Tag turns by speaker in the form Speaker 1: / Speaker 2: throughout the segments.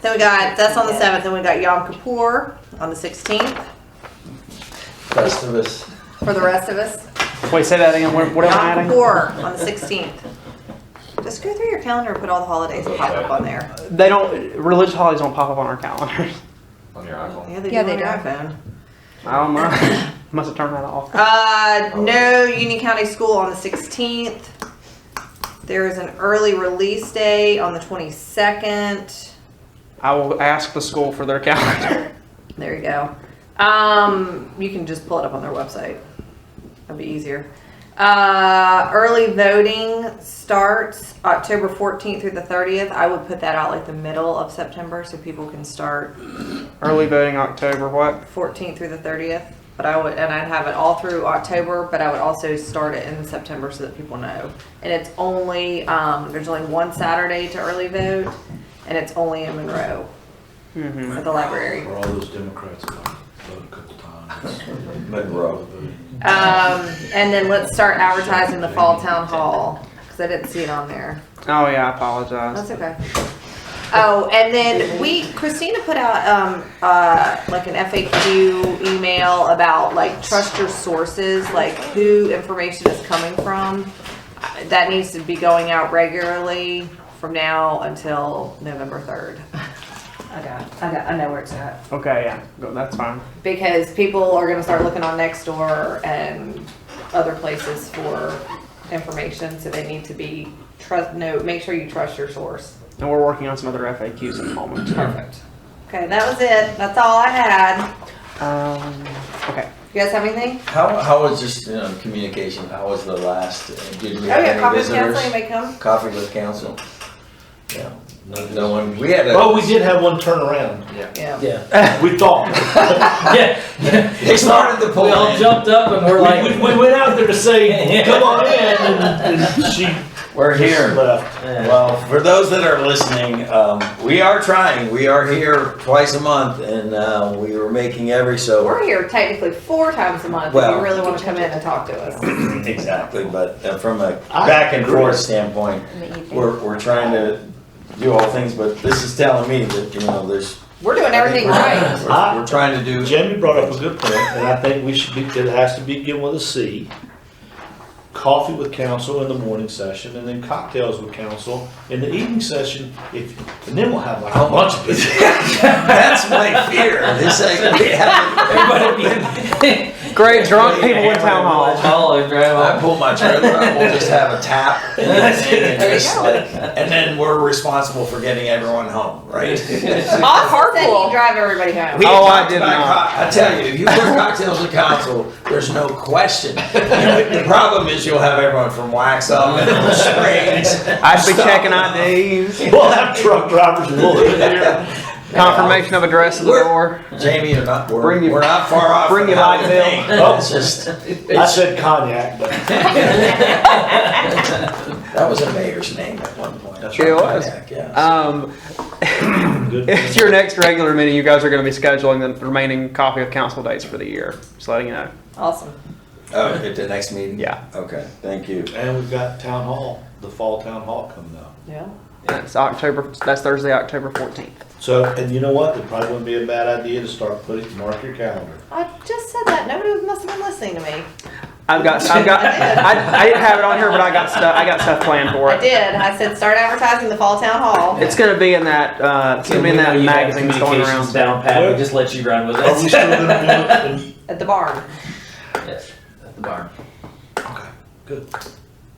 Speaker 1: Then we got, that's on the 7th, then we got Yom Kippur on the 16th
Speaker 2: Festivus.
Speaker 1: for the rest of us.
Speaker 3: Wait, say that again. What what am I
Speaker 1: Yom
Speaker 3: adding?
Speaker 1: Kippur on the 16th. Just go through your calendar and put all the holidays that pop up on there.
Speaker 3: They don't. Religious holidays don't pop up on our calendars.
Speaker 2: On your iPhone.
Speaker 1: Yeah, they do
Speaker 4: Yeah, they
Speaker 1: on your
Speaker 4: do.
Speaker 1: iPhone.
Speaker 3: I don't know. Must have turned that off.
Speaker 1: Uh, no Union County School on the 16th. There is an early release day on the 22nd.
Speaker 3: I will ask the school for their calendar.
Speaker 1: There you go. Um, you can just pull it up on their website. That'd be easier. Uh, early voting starts October 14th through the 30th. I would put that out like the middle of September so people can start
Speaker 3: Early voting October. What?
Speaker 1: 14th through the 30th. But I would, and I'd have it all through October, but I would also start it in September so that people know. And it's only, um, there's only one Saturday to early vote, and it's only in Monroe
Speaker 3: hmm
Speaker 1: at the library.
Speaker 5: For all those Democrats that voted a couple times.
Speaker 2: Monroe.
Speaker 1: Um, and then let's start advertising the fall town hall, cause I didn't see it on there.
Speaker 3: Oh yeah, I apologize.
Speaker 1: That's okay. Oh, and then we, Christina put out, um, uh, like an FAQ email about like trust your sources, like who information is coming from. Uh, That needs to be going out regularly from now until November third.
Speaker 4: I got, I got, I know where it's at.
Speaker 3: Okay, yeah, go- that's fine.
Speaker 1: Because people are gonna start looking on Nextdoor and other places for information, so they need to be, trust, no, make sure you trust your source.
Speaker 3: And we're working on some other FAQs at the moment.
Speaker 1: Perfect. Okay, that was it. That's all I had.
Speaker 3: Um, okay.
Speaker 1: You guys have anything?
Speaker 2: How, how was just, you know, communication, how was the last, uh, did we
Speaker 1: Oh
Speaker 2: have
Speaker 1: yeah,
Speaker 2: any
Speaker 1: conference counseling, you
Speaker 2: visitors?
Speaker 1: may come.
Speaker 2: Coffee with council? Yeah, no one, we had
Speaker 5: Oh,
Speaker 2: a,
Speaker 5: we did have one turnaround.
Speaker 1: Yeah.
Speaker 5: Yeah. We thought.
Speaker 6: Yeah,
Speaker 2: they started the
Speaker 6: we all
Speaker 2: poll,
Speaker 6: jumped up and we're
Speaker 5: We,
Speaker 6: like,
Speaker 5: we, we went out there to say, come on in, and, and she
Speaker 2: we're
Speaker 5: just
Speaker 2: here.
Speaker 5: left.
Speaker 2: Well, for those that are listening, um, we are trying, we are here twice a month and, uh, we were making every so.
Speaker 1: We're here technically four times a month if
Speaker 2: Well-
Speaker 1: you really want to come in and talk to us.
Speaker 2: Exactly, but uh, from a
Speaker 5: I
Speaker 2: back and
Speaker 5: agree.
Speaker 2: forth standpoint,
Speaker 4: In the evening.
Speaker 2: we're, we're trying to do all things, but this is telling me that, you know, there's.
Speaker 1: We're doing everything right.
Speaker 2: We're, we're trying to do,
Speaker 5: Jamie brought up a good point, and I think we should be, it has to begin with a C. Coffee with council in the morning session, and then cocktails with council in the evening session, if, and then we'll have like a bunch of people.
Speaker 2: that's my fear, this, like, we haven't-
Speaker 6: everybody be.
Speaker 3: Great drunk people in town hall.
Speaker 6: Hall, Oh, drive
Speaker 2: I
Speaker 6: off.
Speaker 2: pull my trailer out, we'll just have a tap. and then-
Speaker 1: There you
Speaker 2: just
Speaker 1: go.
Speaker 2: like- And then we're responsible for getting everyone home, right?
Speaker 1: Off carpool. You drive everybody home.
Speaker 2: We
Speaker 3: Oh, I
Speaker 2: talked
Speaker 3: did
Speaker 2: about
Speaker 3: not.
Speaker 2: co- I tell you, if you put cocktails with council, there's no question. The problem is you'll have everyone from Wax Up and Old Springs.
Speaker 3: I'd be checking IDs,
Speaker 5: We'll have truck drivers, we'll live there.
Speaker 3: confirmation of address at the door.
Speaker 2: Jamie, you're not, we're,
Speaker 3: Bring your-
Speaker 2: we're not far off.
Speaker 3: bring
Speaker 2: from
Speaker 3: your
Speaker 2: how
Speaker 3: light
Speaker 2: we
Speaker 3: bill.
Speaker 2: think.
Speaker 5: Oh.
Speaker 2: It's just,
Speaker 5: I
Speaker 2: it's,
Speaker 5: said cognac, but
Speaker 2: that was a mayor's name at one point.
Speaker 5: That's
Speaker 3: right. It was.
Speaker 2: Yeah.
Speaker 3: Um,
Speaker 5: good.
Speaker 3: it's your next regular meeting. You guys are going to be scheduling the remaining coffee of council dates for the year. Just letting you know.
Speaker 1: Awesome.
Speaker 2: Oh, at the next meeting?
Speaker 3: Yeah.
Speaker 2: Okay, thank you.
Speaker 5: And we've got town hall, the fall town hall coming up.
Speaker 1: Yeah.
Speaker 3: That's October. That's Thursday, October fourteenth.
Speaker 5: So, and you know what? It probably wouldn't be a bad idea to start putting, mark your calendar.
Speaker 1: I just said that. Nobody must have been listening to me.
Speaker 3: I've got. I've got. I, I didn't have it on here, but I got stuff. I got stuff planned for
Speaker 1: I
Speaker 3: it.
Speaker 1: did. I said start advertising the fall town hall.
Speaker 3: It's going to be in that. Uh, it's going to be in
Speaker 6: We know
Speaker 3: that
Speaker 6: you have
Speaker 3: magazine that's going
Speaker 6: communications
Speaker 3: around.
Speaker 6: Down pat, we just let you run with
Speaker 5: Are we
Speaker 6: it.
Speaker 5: still gonna do it? in-
Speaker 1: At the barn.
Speaker 6: Yes, At the barn.
Speaker 5: Okay, good.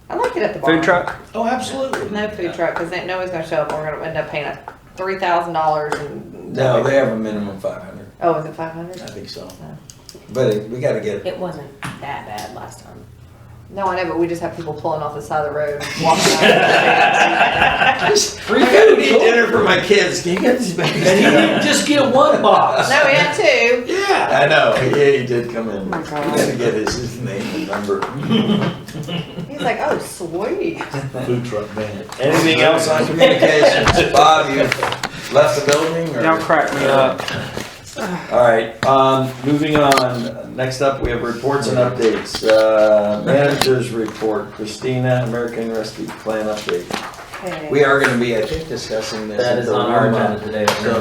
Speaker 1: I like it at the barn.
Speaker 3: Food truck.
Speaker 5: Oh, absolutely.
Speaker 1: No food truck, cause then nobody's gonna show up. and We're gonna end up paying a three thousand dollars and.
Speaker 2: No, they have a minimum five hundred,
Speaker 1: Oh, is it five hundred?
Speaker 2: I think so. But it- we gotta get,
Speaker 4: It wasn't that bad last time.
Speaker 1: No, I know, but we just have people pulling off the side of the road, walking out.
Speaker 2: I gotta need dinner for my kids, can you get these babies?
Speaker 6: And you
Speaker 2: dinner?
Speaker 6: didn't just get one box.
Speaker 1: No, we had two.
Speaker 5: Yeah.
Speaker 2: I know, yeah, he did come in. We
Speaker 3: Oh my God.
Speaker 2: gotta get his, his name and number.
Speaker 1: He's like, oh, sweet.
Speaker 5: Food truck bandit.
Speaker 2: Anything else on communications? Bob, you left the building or?
Speaker 3: Don't crack me up.
Speaker 2: All right, um, moving on. Next up, we have reports and updates. Uh, managers report, Christina, American Rescue Plan update.
Speaker 4: Okay.
Speaker 2: We are gonna be, I think, discussing this.
Speaker 6: That
Speaker 2: at
Speaker 6: is
Speaker 2: the
Speaker 6: on our
Speaker 2: Roma.
Speaker 6: agenda today.
Speaker 2: So